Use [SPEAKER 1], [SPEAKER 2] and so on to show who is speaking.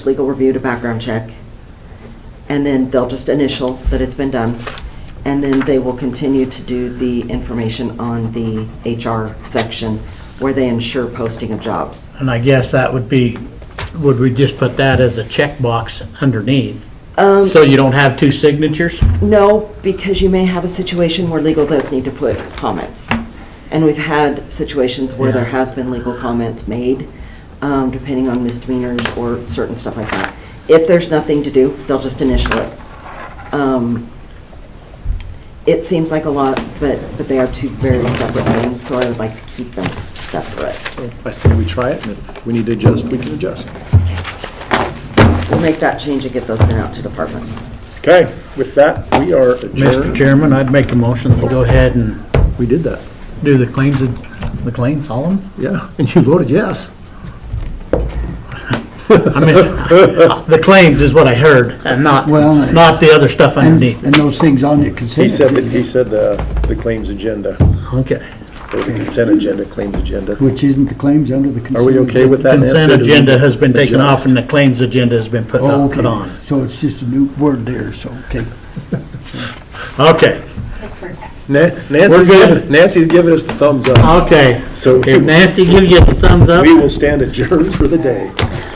[SPEAKER 1] legal review to background check. And then they'll just initial that it's been done. And then they will continue to do the information on the HR section where they ensure posting of jobs.
[SPEAKER 2] And I guess that would be, would we just put that as a checkbox underneath? So you don't have two signatures?
[SPEAKER 1] No, because you may have a situation where legal does need to put comments. And we've had situations where there
[SPEAKER 2] Yeah.
[SPEAKER 1] has been legal comments made, um, depending on misdemeanors or certain stuff like that. If there's nothing to do, they'll just initial it. Um, It seems like a lot, but, but they are two very separate things, so I would like to keep them separate.
[SPEAKER 3] I think we try it, and if we need to adjust, we can adjust.
[SPEAKER 1] We'll make that change and get those sent out to departments.
[SPEAKER 3] Okay, with that, we are
[SPEAKER 2] Mr.
[SPEAKER 3] adjourned.
[SPEAKER 2] Chairman, I'd make a motion to go ahead and
[SPEAKER 3] We did that,
[SPEAKER 2] do the claims, the claims, all of them?
[SPEAKER 3] yeah, and you voted yes.
[SPEAKER 2] I mean, the claims is what I heard, and not,
[SPEAKER 4] Well,
[SPEAKER 2] not the other stuff
[SPEAKER 4] And,
[SPEAKER 2] underneath.
[SPEAKER 4] and those things on your consent.
[SPEAKER 3] He said, that- he said uh, the claims agenda,
[SPEAKER 2] Okay.
[SPEAKER 3] or the consent agenda, claims agenda.
[SPEAKER 4] Which isn't the claims under the consent.
[SPEAKER 3] Are we okay with that? Nancy,
[SPEAKER 2] Consent
[SPEAKER 3] or do we
[SPEAKER 2] agenda has been taken off,
[SPEAKER 3] adjust?
[SPEAKER 2] and the claims agenda has been put
[SPEAKER 4] Oh,
[SPEAKER 2] up- put
[SPEAKER 4] okay.
[SPEAKER 2] on.
[SPEAKER 4] So it's just a new word there, so, okay.
[SPEAKER 2] Okay,
[SPEAKER 3] Na-
[SPEAKER 2] We're
[SPEAKER 3] Nancy's
[SPEAKER 2] good.
[SPEAKER 3] giving, Nancy's giving us the thumbs up.
[SPEAKER 2] okay.
[SPEAKER 3] So-
[SPEAKER 2] If Nancy gives you the thumbs up,
[SPEAKER 3] We will stand adjourned for the day.